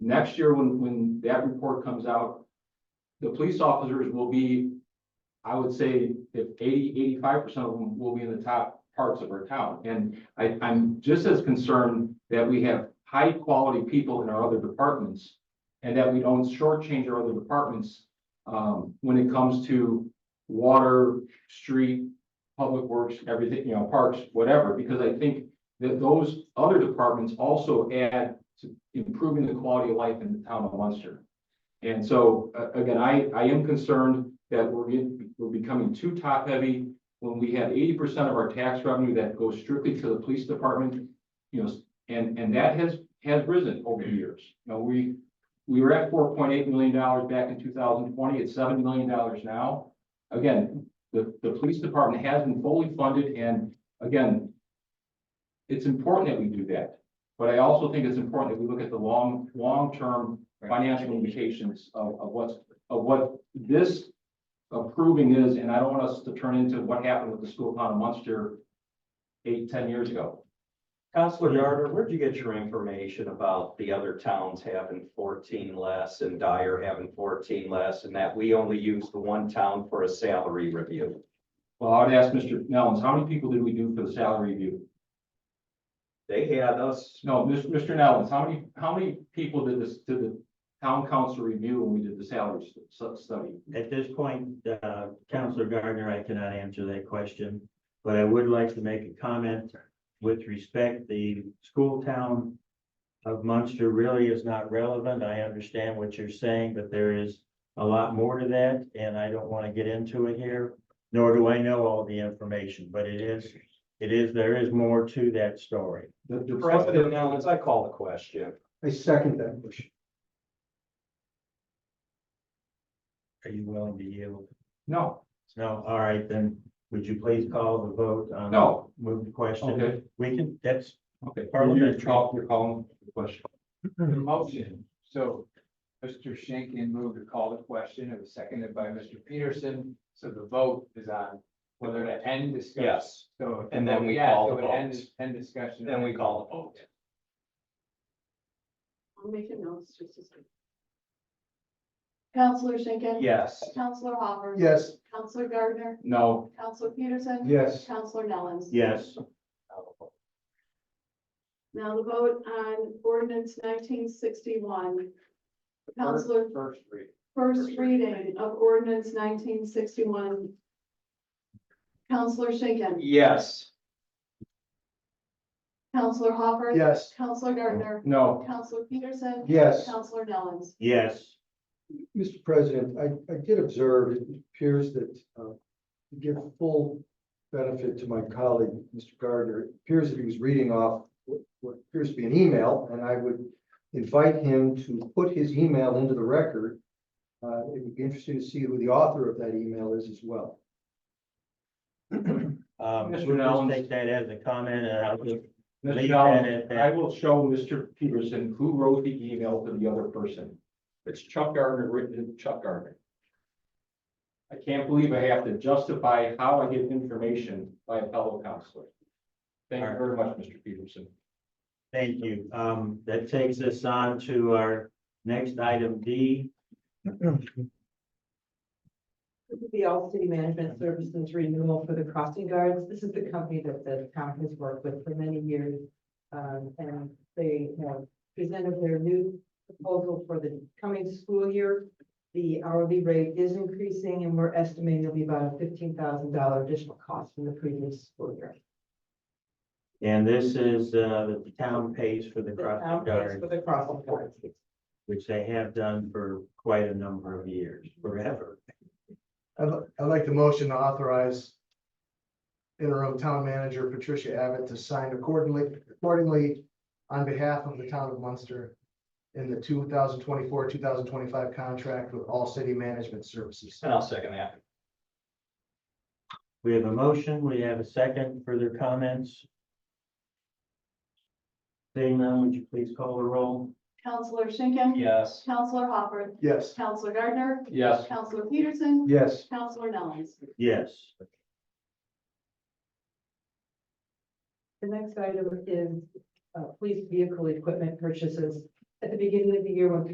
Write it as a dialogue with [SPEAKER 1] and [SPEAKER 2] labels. [SPEAKER 1] Next year, when, when that report comes out, the police officers will be, I would say, if 80, 85 percent of them will be in the top parts of our town. And I, I'm just as concerned that we have high-quality people in our other departments and that we don't shortchange our other departments, um, when it comes to water, street, public works, everything, you know, parks, whatever, because I think that those other departments also add to improving the quality of life in the town of Munster. And so, a- again, I, I am concerned that we're in, we're becoming too top-heavy when we have eighty percent of our tax revenue that goes strictly to the police department, you know, s- and, and that has, has risen over the years. You know, we, we were at four point eight million dollars back in two thousand twenty, it's seven million dollars now. Again, the, the police department has been fully funded, and again, it's important that we do that. But I also think it's important that we look at the long, long-term financial implications of, of what's, of what this approving is, and I don't want us to turn into what happened with the school town of Munster eight, ten years ago.
[SPEAKER 2] Counselor Yarder, where'd you get your information about the other towns having fourteen less and Dyer having fourteen less and that we only use the one town for a salary review?
[SPEAKER 1] Well, I would ask Mr. Nellens, how many people did we do for the salary review?
[SPEAKER 2] They had us,
[SPEAKER 1] No, Mr. Mr. Nellens, how many, how many people did this, did the town council review when we did the salary stu- stu- study?
[SPEAKER 3] At this point, uh, Counselor Gardner, I cannot answer that question, but I would like to make a comment with respect, the school town of Munster really is not relevant. I understand what you're saying, but there is a lot more to that, and I don't want to get into it here, nor do I know all the information, but it is, it is, there is more to that story.
[SPEAKER 1] The, the
[SPEAKER 2] President Nellens, I call the question.
[SPEAKER 4] I second that motion.
[SPEAKER 3] Are you willing to yield?
[SPEAKER 1] No,
[SPEAKER 3] No, all right, then, would you please call the vote on?
[SPEAKER 1] no,
[SPEAKER 3] Move the question.
[SPEAKER 1] okay,
[SPEAKER 3] We can, that's
[SPEAKER 1] okay.
[SPEAKER 3] Parliamentary.
[SPEAKER 1] You're call- you're calling the question.
[SPEAKER 5] Motion, so Mr. Shankin moved to call the question, it was seconded by Mr. Peterson, so the vote is on whether to end discussion.
[SPEAKER 2] Yes,
[SPEAKER 5] So. if
[SPEAKER 2] And then we
[SPEAKER 5] yes,
[SPEAKER 2] call
[SPEAKER 5] so
[SPEAKER 2] the
[SPEAKER 5] it ends-
[SPEAKER 2] vote.
[SPEAKER 5] End discussion.
[SPEAKER 2] then we call the vote.
[SPEAKER 6] I'll make a note, it's just a second. Counselor Schinkin.
[SPEAKER 2] Yes,
[SPEAKER 6] Counselor Hopper.
[SPEAKER 4] Yes.
[SPEAKER 6] Counselor Gardner.
[SPEAKER 1] No,
[SPEAKER 6] Counselor Peterson.
[SPEAKER 4] Yes.
[SPEAKER 6] Counselor Nellens.
[SPEAKER 3] Yes,
[SPEAKER 6] Now the vote on ordinance nineteen sixty-one. Counselor,
[SPEAKER 5] First read.
[SPEAKER 6] first reading of ordinance nineteen sixty-one. Counselor Schinkin.
[SPEAKER 2] yes,
[SPEAKER 6] Counselor Hopper.
[SPEAKER 4] Yes.
[SPEAKER 6] Counselor Gardner.
[SPEAKER 1] no,
[SPEAKER 6] Counselor Peterson.
[SPEAKER 4] Yes.
[SPEAKER 6] Counselor Nellens.
[SPEAKER 3] yes,
[SPEAKER 4] Mr. President, I, I did observe, it appears that, uh, to give full benefit to my colleague, Mr. Gardner, it appears that he was reading off what, what appears to be an email, and I would invite him to put his email into the record. Uh, it would be interesting to see who the author of that email is as well.
[SPEAKER 3] um,
[SPEAKER 1] Mr.
[SPEAKER 3] we'll just
[SPEAKER 1] Nellens.
[SPEAKER 3] take that as a comment and I'll just,
[SPEAKER 1] Mr.
[SPEAKER 3] Leave that
[SPEAKER 1] Nellens,
[SPEAKER 3] at that.
[SPEAKER 1] I will show Mr. Peterson who wrote the email to the other person. It's Chuck Gardner, written to Chuck Gardner. I can't believe I have to justify how I get information by a fellow counselor. Thank you very much, Mr. Peterson.
[SPEAKER 3] thank you. Um, that takes us on to our next item D.
[SPEAKER 7] This is the All City Management Services renewal for the crossing guards. This is the company that the town has worked with for many years. Um, and they have presented their new proposal for the coming school year. The hourly rate is increasing and we're estimating it'll be about a fifteen thousand dollar additional cost from the previous school year.
[SPEAKER 3] And this is, uh, that the town pays for the
[SPEAKER 7] The town
[SPEAKER 3] crossing
[SPEAKER 7] pays
[SPEAKER 3] guard,
[SPEAKER 7] For the crossing guards.
[SPEAKER 3] which they have done for quite a number of years, forever.
[SPEAKER 8] I'd, li- I'd like the motion to authorize interim town manager Patricia Abbott to sign accordingly, accordingly on behalf of the town of Munster in the two thousand twenty-four, two thousand twenty-five contract with All City Management Services.
[SPEAKER 2] and I'll second that.
[SPEAKER 3] We have a motion, we have a second, further comments? Seeing none, would you please call the roll?
[SPEAKER 6] Counselor Schinkin.
[SPEAKER 2] Yes,
[SPEAKER 6] Counselor Hopper.
[SPEAKER 8] Yes.
[SPEAKER 6] Counselor Gardner.
[SPEAKER 1] Yes,
[SPEAKER 6] Counselor Peterson.
[SPEAKER 4] Yes.
[SPEAKER 6] Counselor Nellens.
[SPEAKER 3] Yes.
[SPEAKER 7] The next item is uh, police vehicle equipment purchases. at the beginning of the year when